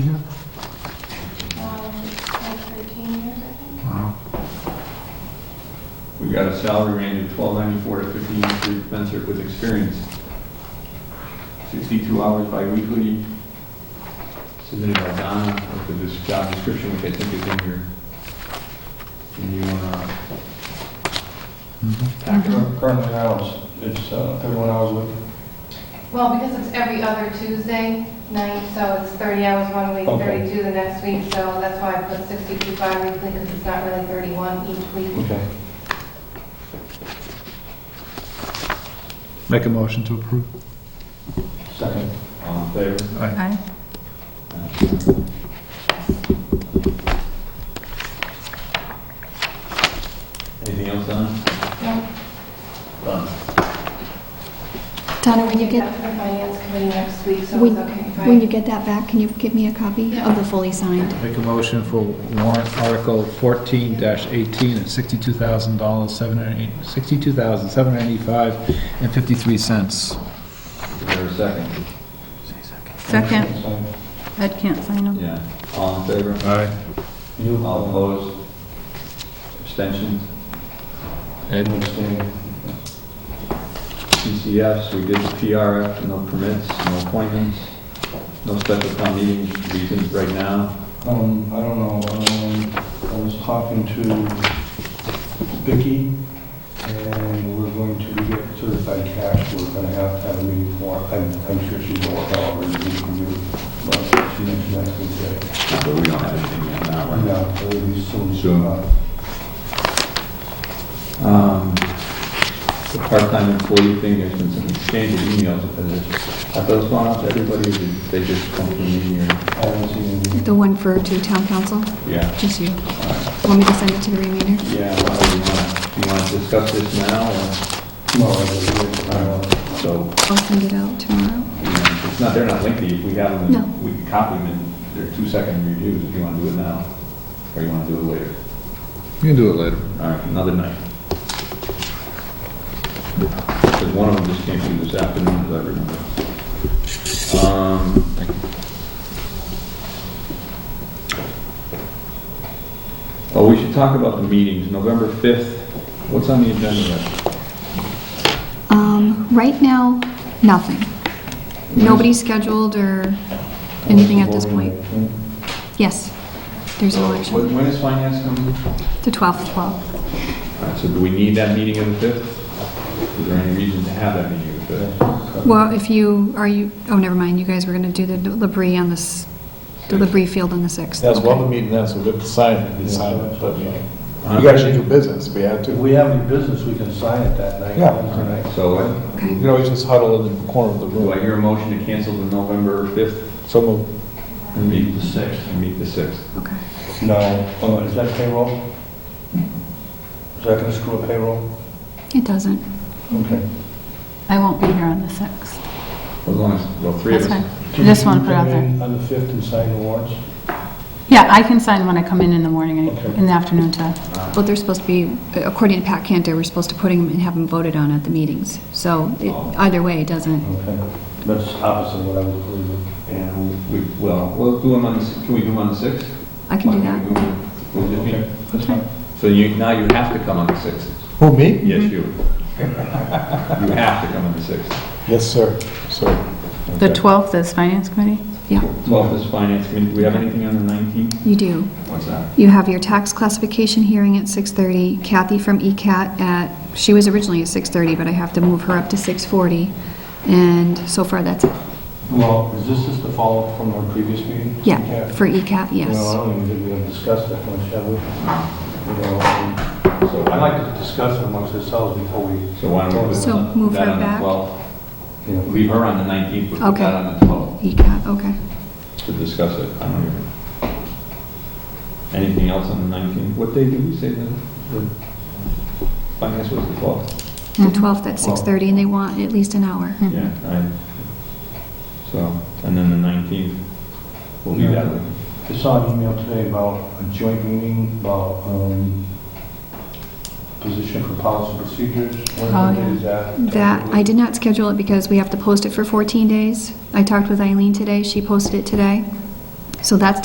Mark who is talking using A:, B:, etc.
A: We've got a salary range of twelve ninety-four to fifteen hundred commensurate with experience. Sixty-two hours bi-weekly, submitted by Donna with this job description, which I think is in here. And you wanna
B: Currently, I was, it's uh, 31 hours a week.
C: Well, because it's every other Tuesday night, so it's 30 hours one week,
B: Okay.
C: 32 the next week, so that's why I put 62 bi-weekly, because it's not really 31 each week.
B: Okay.
D: Make a motion to approve.
B: Second.
A: All in favor?
E: Aye.
A: Anything else on?
C: No,
A: Done.
F: Donna, when you
C: That's
F: get,
C: for the finance committee next week, so
F: when
C: it's okay. if I-
F: when you get that back, can you give me a copy of the fully signed?
D: Make a motion for warrant article fourteen eighteen at sixty-two thousand dollars, seven hundred eight, sixty-two thousand, seven hundred eighty-five and fifty-three cents.
A: Is there a second?
E: Second, Ed can't sign them.
A: Yeah. All in favor?
D: Aye.
B: You,
A: All
B: I'll
A: opposed? Abstentions?
D: Ed?
B: abstain.
A: PCFs, we did the PRF, no permits, no appointments, no special town meeting reasons right now.
B: Um, I don't know, um, I was talking to Vicky, and we're going to get certified cash, we're gonna have to have a meeting for, I'm, I'm sure she's gonna work out, already. we can do, but she mentioned that's good.
A: So we don't have anything yet now, right?
B: Yeah, it'll be soon.
A: Soon.
B: Uh,
A: Um, The part-time employee thing, there's been some exchange of emails, have those gone out to everybody, or did they just come from me or?
B: I haven't seen any.
F: The one for to town council?
A: Yeah.
F: Just you. Want me to send it to the remainder?
A: Yeah, well, do you want, do you want to discuss this now, or,
B: No, I don't. I don't.
A: so,
F: I'll send it out tomorrow.
A: you know, it's not, they're not lengthy, if we have them,
F: No.
A: we can copy them, in they're two-second reviews, if you want to do it now, or you want to do it later.
D: You can do it later.
A: All right, another night. Because one of them just came through this afternoon, as I remember. Um, Oh, we should talk about the meetings, November 5th, what's on the agenda?
F: Um, right now, nothing. Nobody's scheduled or anything at this point. Yes, there's an election.
A: When when is finance coming?
F: The 12th, 12th.
A: All right, so do we need that meeting on the 5th? Is there any reason to have that meeting on the 5th?
F: Well, if you, are you, oh, never mind, you guys were gonna do the delivery on this, delivery field on the 6th.
G: That's one of
F: Okay.
G: the meeting then, so we have to sign it, we sign it, but you
A: Huh?
G: you guys should do business, we have
B: If
G: to.
B: we have any business, we can sign it that night.
G: Yeah.
B: Wednesday night.
A: So uh,
G: You can always just huddle in the corner of the
A: do I
G: room.
A: hear a motion to cancel the November 5th
G: So move.
A: and meet the 6th? And meet the 6th.
F: Okay.
B: No, uh, is that payroll? Is that gonna screw up payroll?
F: It doesn't.
B: Okay.
E: I won't be here on the 6th.
A: As long as, well, three of
E: That's
A: us.
E: fine. I just want to put out
B: Can
E: there.
B: you come in On the 5th and sign the warrants?
E: Yeah, I can sign when I come in in the morning, and
B: Okay.
E: in the afternoon, Todd.
F: But they're supposed to be, according to Pat Cantor, we're supposed to put them and have them voted on at the meetings. So it- either way, it doesn't.
B: Okay. That's opposite of what I was believing.
A: And we, well, we'll do them on, the s- can we do them on the 6th?
F: I can do that.
A: that.
B: That's fine.
A: So you, now you have to come on the 6th?
G: Who, me?
A: Yes, you.
F: Mm-hmm.
A: You have to come on the 6th.
G: Yes, sir, sir.
E: The
G: Okay.
E: 12th is Finance Committee?
F: Yeah,
A: 12th is finance, I mean, do we have anything on the 19th?
F: you do.
A: What's that?
F: You have your tax classification hearing at 6:30. Kathy from E ECAT at, she was originally at 6:30, but I have to move her up to 6:40. And so far, that's it.
B: Well, is this just the follow-up from our previous meeting?
F: Yeah, for E ECAT,
B: You know, I
F: yes.
B: don't even think we have discussed that much, have we? You know, um, So I'd like to discuss it amongst ourselves before we,
A: So why don't we put
F: So
A: that
F: move her
A: on the
F: back.
A: 12th?
B: you know,
A: Leave her on the 19th, but put
F: Okay.
A: that on the 12th
F: ECAT, okay.
A: to discuss it. I don't even. Anything else on the 19th? What day did we say the, the finance was the 12th?
F: The 12th at 6:30, and they want at least an hour.
E: Mm-hmm.
A: Yeah, I, so, and then the 19th, we'll do that. one.
B: I saw an email today about a joint meeting about um, position for policy procedures.
E: Oh,
B: When
E: yeah.
B: is that?
F: Uh, That, I did not schedule it because we have to post it for 14 days. I talked with Eileen today, she posted it today. So that's